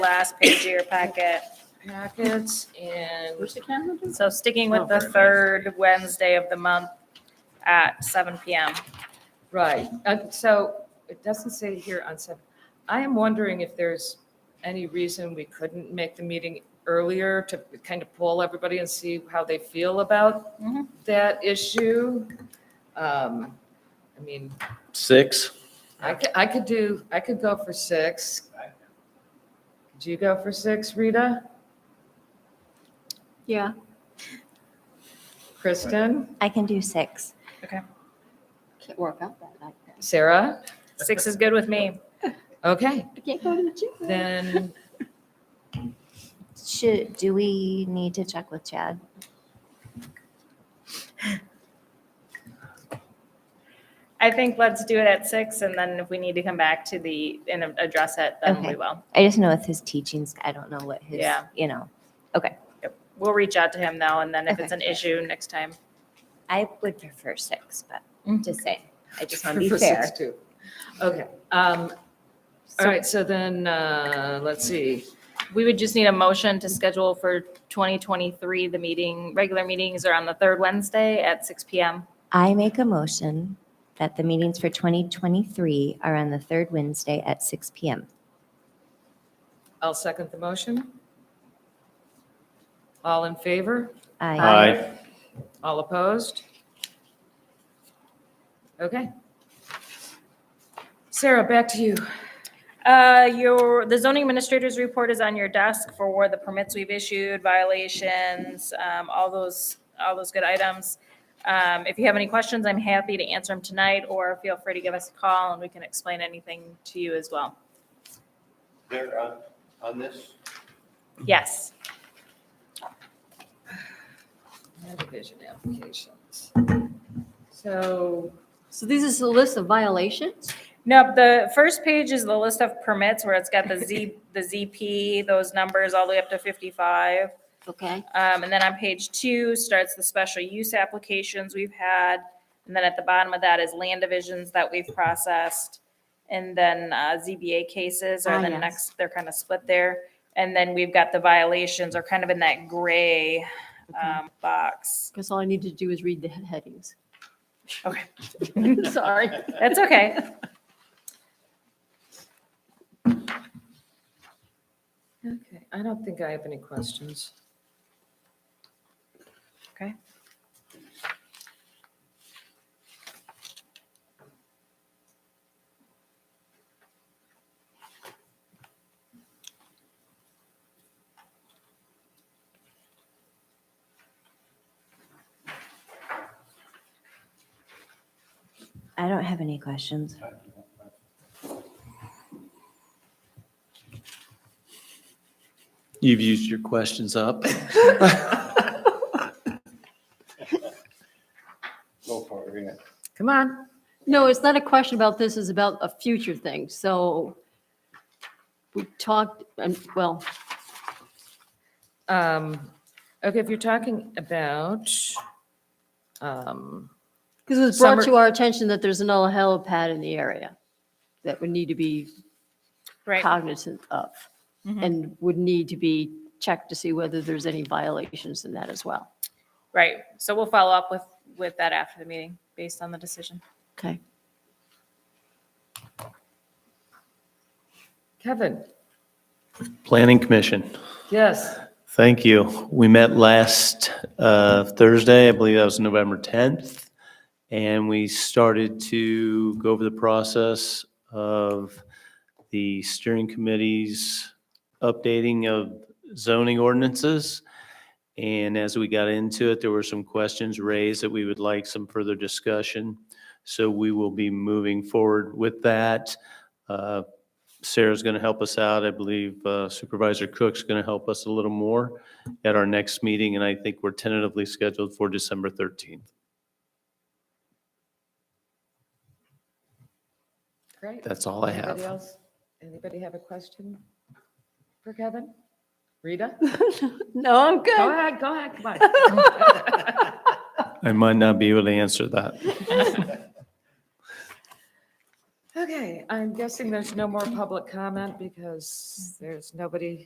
last page of your packet. packets and. Where's the camera? So sticking Oh, with the third Wednesday of the month at seven PM. Right, uh, so it doesn't say here on seven. I am wondering if there's any reason we couldn't make the meeting earlier to kind of poll everybody and see how they feel about Mhm. that issue. Um, I mean, Six. I could, I could do, I could go for six. Could you go for six, Rita? Yeah. Kristen? I can do six. Can't work out that like that. Sarah? Six is good with me. Okay, I can't go to the gym. then, Should, do we need to check with Chad? I think let's do it at six and then if we need to come back to the, and address it, then we Okay. will. I just know with his teachings, I don't know what his, Yeah. you know. We'll reach out to him though, and then if it's an Okay. issue next time. I would prefer six, but Mhm. just saying, I just want to For be six, fair. too. Okay, um, all So right, so then, uh, let's see. We would just need a motion to schedule for twenty twenty-three, the meeting, regular meetings are on the third Wednesday at six PM. I make a motion that the meetings for 2023 are on the third Wednesday at six PM. I'll second the motion. All in favor? I, All opposed? Okay. Sarah, back to you. Uh, your, the zoning administrator's report is on your desk for the permits we've issued, violations, um, all those, all those good items. Um, if you have any questions, I'm happy to answer them tonight, or feel free to give us a call and we can explain anything to you as well. there on, on this? Yes, Subdivision applications. So, So these is a list of violations? no, the first page is the list of permits where it's got the Z, the ZP, those numbers all the way up to fifty-five. Okay. Um, and then on page two starts the special use applications we've had. And then at the bottom of that is land divisions that we've processed. And then, uh, ZBA cases are Ah, the yes. next, they're kind of split there. And then we've got the violations are kind of in that gray, um, box. Because all I need to do is read the he- headings. Okay. Sorry. That's okay. okay, I don't think I have any questions. I don't have any questions. You've used your questions up. Go for it, Rena. Come on. No, it's not a question about this, it's about a future thing. So we talked, and well, Um, okay, if you're talking about, um, because it was brought to Summer- our attention that there's another helipad in the area that would need to be Right. cognizant of Mhm. and would need to be checked to see whether there's any violations in that as well. Right. So we'll follow up with, with that after the meeting based on the decision. Okay. Kevin, Planning Commission, yes, thank you. We met last uh, Thursday, I believe that was November 10th. And we started to go over the process of the steering committee's updating of zoning ordinances. And as we got into it, there were some questions raised that we would like some further discussion. So we will be moving forward with that. Uh, Sarah's going to help us out. I believe uh, Supervisor Cook's going to help us a little more at our next meeting, and I think we're tentatively scheduled for December 13th. great. That's all I Anybody have. else? Anybody have a question for Kevin? Rita? No, I'm good. Go ahead, go ahead, come on. I might not be able to answer that. Okay, I'm guessing there's no more public comment because there's nobody